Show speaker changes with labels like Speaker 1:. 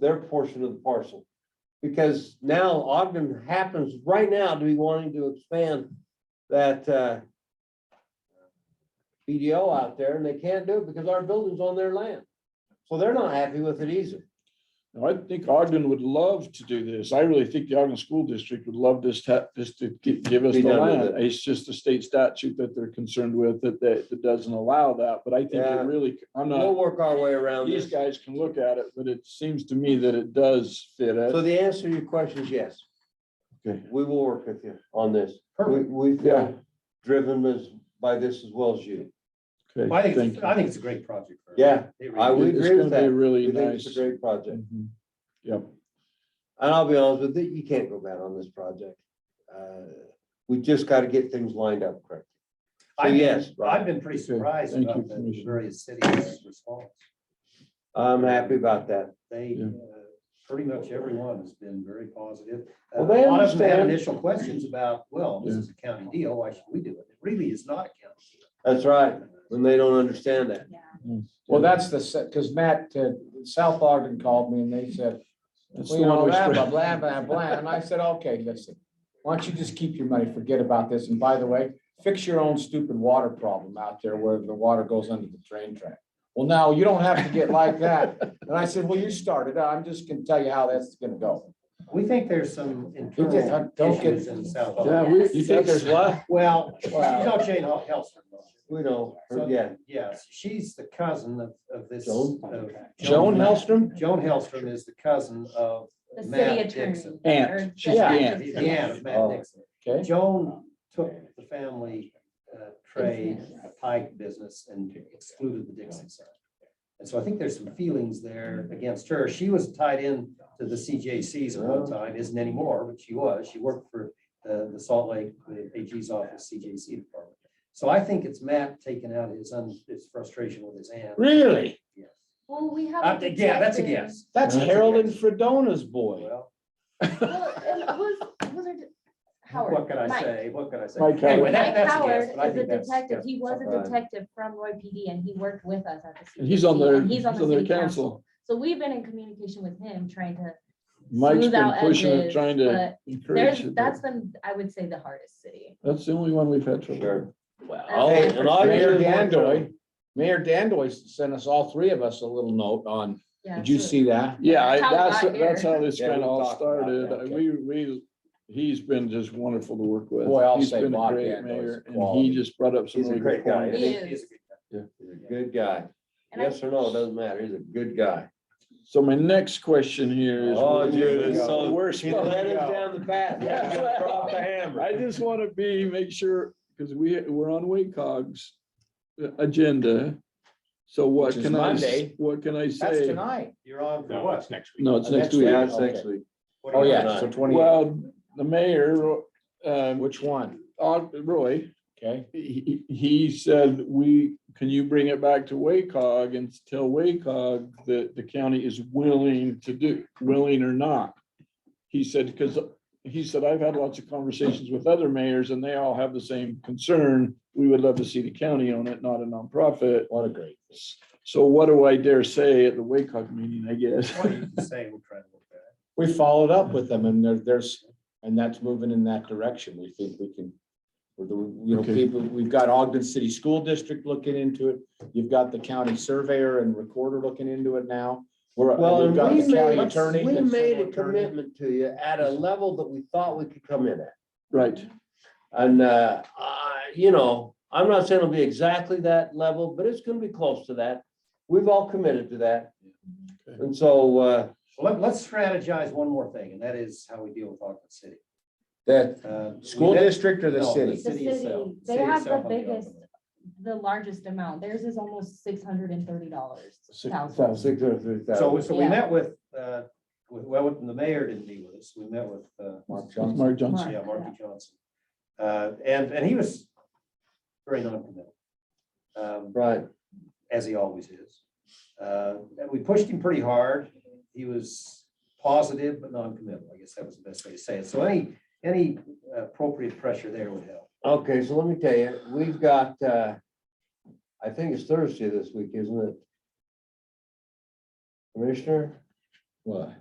Speaker 1: their portion of the parcel. Because now Ogden happens right now to be wanting to expand that, uh, BDO out there and they can't do it because our building's on their land. So they're not happy with it either.
Speaker 2: Now, I think Ogden would love to do this. I really think the Ogden School District would love this, ta- this to gi- give us
Speaker 1: Be
Speaker 2: the
Speaker 1: done with
Speaker 2: land. It's just the state statute that they're concerned with that, that, that doesn't allow that, but I think
Speaker 1: Yeah.
Speaker 2: it really, I'm
Speaker 1: We'll
Speaker 2: not,
Speaker 1: work our way around
Speaker 2: these
Speaker 1: this.
Speaker 2: guys can look at it, but it seems to me that it does fit
Speaker 1: So
Speaker 2: it.
Speaker 1: the answer to your question is yes, we will work with you on this. We,
Speaker 3: Perfect.
Speaker 1: we
Speaker 2: Yeah.
Speaker 1: feel driven as, by this as well as you.
Speaker 2: Okay,
Speaker 3: I think,
Speaker 2: thank
Speaker 3: it's-
Speaker 2: you.
Speaker 3: I think it's a great project. for us.
Speaker 1: Yeah,
Speaker 3: It
Speaker 1: I
Speaker 3: really
Speaker 1: would
Speaker 3: is.
Speaker 2: It's
Speaker 1: agree with
Speaker 2: gonna be
Speaker 1: that.
Speaker 2: Really
Speaker 1: We think it's
Speaker 2: nice.
Speaker 1: a great project.
Speaker 2: Mhm. Yep.
Speaker 1: And I'll be honest with you, you can't go bad on this project. Uh, We just got to get things lined up correctly. So
Speaker 3: I've been-
Speaker 1: yes, Rob.
Speaker 3: I've been pretty surprised
Speaker 2: Thank you,
Speaker 3: about the- the
Speaker 2: Commissioner.
Speaker 3: various cities' response.
Speaker 1: I'm happy about that.
Speaker 3: They,
Speaker 2: Yeah.
Speaker 3: uh, pretty much everyone has been very positive. Uh, A
Speaker 1: Well, they
Speaker 3: lot of them had
Speaker 1: understand.
Speaker 3: initial questions about, well, this is a county deal, why should we do it? It really is not a county deal.
Speaker 1: That's right, when they don't understand that.
Speaker 4: Well, that's the, because Matt, uh, South Ogden called me and they said,
Speaker 2: That's
Speaker 4: we
Speaker 2: the one
Speaker 4: know
Speaker 2: we
Speaker 4: that, blah,
Speaker 2: spread.
Speaker 4: blah, blah, blah. And I said, okay, listen, why don't you just keep your money, forget about this. And by the way, fix your own stupid water problem out there where the water goes under the train track. Well, now you don't have to get like that. And I said, well, you started. uh, I'm just gonna tell you how that's gonna go.
Speaker 3: We think there's some
Speaker 4: uh,
Speaker 3: internal
Speaker 4: don't get-
Speaker 3: issues in South.
Speaker 2: Yeah,
Speaker 3: Alabama.
Speaker 2: we, you think there's what?
Speaker 3: Well, you
Speaker 4: Wow.
Speaker 3: know Jane Hel- Helserman. don't you?
Speaker 1: We know,
Speaker 3: So-
Speaker 1: yeah.
Speaker 3: Yes, she's the cousin of, of this.
Speaker 1: Joan?
Speaker 3: of
Speaker 2: Joan Hellstrom?
Speaker 3: Joan Hellstrom is the cousin of
Speaker 5: The city
Speaker 3: Matt
Speaker 5: attorney.
Speaker 3: Dixon.
Speaker 2: Aunt, she's the
Speaker 4: Yeah.
Speaker 2: aunt.
Speaker 3: He's the aunt of Matt
Speaker 1: Oh.
Speaker 3: Dixon.
Speaker 4: Okay?
Speaker 3: Joan took the family uh, trade, the pike business, and excluded the Dixon side. And so I think there's some feelings there against her. She was tied in to the CJCs at
Speaker 5: Uh-huh.
Speaker 3: one time, isn't anymore, but she was. She worked for uh, the Salt Lake the AG's office, CJC department. So I think it's Matt taking out his, un- his frustration with his aunt.
Speaker 2: Really?
Speaker 3: Yes.
Speaker 5: Well, we have.
Speaker 3: Uh,
Speaker 5: a
Speaker 3: Yeah, that's a
Speaker 5: detective.
Speaker 3: guess.
Speaker 2: That's
Speaker 3: That's a
Speaker 2: Harold and
Speaker 3: guess.
Speaker 2: Fredona's boy.
Speaker 3: Well,
Speaker 5: Well, it was- was it Howard.
Speaker 3: what can I
Speaker 5: Mike.
Speaker 3: say? What can I say?
Speaker 2: Mike Howard.
Speaker 3: Anyway, that-
Speaker 5: Mike
Speaker 3: that's a
Speaker 5: Howard
Speaker 3: guess, but I
Speaker 5: is a
Speaker 3: think that's-
Speaker 5: detective.
Speaker 3: that's
Speaker 5: He was
Speaker 1: right.
Speaker 5: a detective from Roy PD and he worked with us at the.
Speaker 2: And he's on their,
Speaker 5: CPC,
Speaker 2: he's on
Speaker 5: the
Speaker 2: their
Speaker 5: city
Speaker 2: council.
Speaker 5: So we've been in communication with him, trying to,
Speaker 2: Mike's
Speaker 5: Smooth
Speaker 2: been
Speaker 5: out
Speaker 2: pushing it,
Speaker 5: edges,
Speaker 2: trying to
Speaker 5: but
Speaker 2: encourage
Speaker 5: there's,
Speaker 2: it.
Speaker 5: that's
Speaker 2: but
Speaker 5: been, I would say, the hardest city.
Speaker 2: That's the only one we've had trouble.
Speaker 1: Sure.
Speaker 5: I'll-
Speaker 1: Hey,
Speaker 5: for
Speaker 1: and I'll-
Speaker 4: Mayor Dandoy, Mayor Dandoy sent us, all three of us, a little note on,
Speaker 5: Yeah,
Speaker 4: did you
Speaker 5: so-
Speaker 4: see that?
Speaker 2: Yeah, I-
Speaker 5: That's how we
Speaker 2: that's,
Speaker 5: got here.
Speaker 2: that's how this
Speaker 1: Yeah,
Speaker 2: kind of
Speaker 1: we
Speaker 2: all
Speaker 1: talked about
Speaker 2: started.
Speaker 4: that,
Speaker 2: I- We, we, he's been just wonderful to work with.
Speaker 4: Boy, I'll
Speaker 2: He's
Speaker 4: say
Speaker 2: been a
Speaker 4: Bob
Speaker 2: great
Speaker 4: Gandolf's
Speaker 2: mayor, And
Speaker 4: quality.
Speaker 2: he just brought up some.
Speaker 1: He's a
Speaker 2: really
Speaker 1: great
Speaker 2: good
Speaker 1: guy,
Speaker 2: points.
Speaker 5: He is.
Speaker 1: He's a good guy.
Speaker 5: And I-
Speaker 1: Yes or no, it doesn't matter. He's a good guy.
Speaker 2: So my next question here is.
Speaker 1: Oh,
Speaker 2: where do
Speaker 1: dude,
Speaker 2: we
Speaker 1: it's
Speaker 2: go?
Speaker 1: so-
Speaker 2: Where's
Speaker 1: He
Speaker 2: supposed
Speaker 1: led
Speaker 2: to
Speaker 1: us
Speaker 2: go?
Speaker 1: down the path.
Speaker 2: Yeah.
Speaker 1: He dropped the hammer.
Speaker 2: I just want to be, make sure, because we, we're on WACOG's agenda. So what
Speaker 4: Which is
Speaker 2: can I, s-
Speaker 4: Monday.
Speaker 2: what can I
Speaker 4: That's
Speaker 2: say?
Speaker 4: tonight.
Speaker 3: You're on for
Speaker 6: No,
Speaker 3: what?
Speaker 6: it's next week.
Speaker 2: No, it's next
Speaker 4: Next
Speaker 2: week.
Speaker 4: week.
Speaker 1: Yeah, it's next week.
Speaker 3: What are
Speaker 4: Oh,
Speaker 3: you on?
Speaker 4: yeah, so twenty,
Speaker 2: Well, the mayor, um,
Speaker 4: which one?
Speaker 2: Og- Roy,
Speaker 4: Okay?
Speaker 2: he, he- he said, we, can you bring it back to WACOG and tell WACOG that the county is willing to do, willing or not? He said, because he said, I've had lots of conversations with other mayors and they all have the same concern. We would love to see the county own it, not a nonprofit.
Speaker 4: What a great.
Speaker 2: So what do I dare say at the WACOG meeting, I guess?
Speaker 3: What do you say? We'll try to look at it.
Speaker 4: We followed up with them and there, there's, and that's moving in that direction. We think we can. we're the- You know,
Speaker 2: Okay.
Speaker 4: people, we've got Ogden City School District looking into it. You've got the county surveyor and recorder looking into it now. We're,
Speaker 1: Well,
Speaker 4: we've
Speaker 1: and
Speaker 4: got
Speaker 1: we
Speaker 4: the county
Speaker 1: made,
Speaker 4: attorney.
Speaker 1: we
Speaker 4: the
Speaker 1: made
Speaker 4: civil
Speaker 1: a
Speaker 4: attorney.
Speaker 1: commitment to you at a level that we thought we could come in at.
Speaker 2: Right.
Speaker 1: And, uh, I- you know, I'm not saying it'll be exactly that level, but it's gonna be close to that. We've all committed to that.
Speaker 2: Okay.
Speaker 1: And so, uh,
Speaker 3: Well, Let, let's strategize one more thing, and that is how we deal with Ogden City.
Speaker 4: The
Speaker 3: Uh, we
Speaker 4: school
Speaker 3: met-
Speaker 4: district or the
Speaker 3: No,
Speaker 4: city?
Speaker 5: The city,
Speaker 3: itself.
Speaker 5: they
Speaker 3: City
Speaker 5: have
Speaker 3: itself on
Speaker 5: the biggest-
Speaker 3: Ogden.
Speaker 5: The largest amount, theirs is almost six hundred and thirty dollars.
Speaker 4: Six
Speaker 1: six hundred three
Speaker 3: So,
Speaker 1: thousand.
Speaker 3: so we
Speaker 5: Yeah.
Speaker 3: met with, uh, with, well, the mayor didn't meet with us. We met with, uh,
Speaker 4: Mark Johnson.
Speaker 2: Mark Johnson.
Speaker 3: yeah, Marky Johnson. Uh, and, and he was very noncommittal. Um,
Speaker 1: Right,
Speaker 3: as he always is. Uh, and we pushed him pretty hard. He was positive but non-committal. I guess that was the best way to say it. So any, any uh, appropriate pressure there would help.
Speaker 1: okay, so let me tell you, we've got, uh, I think it's Thursday this week, isn't it? Commissioner,
Speaker 4: What?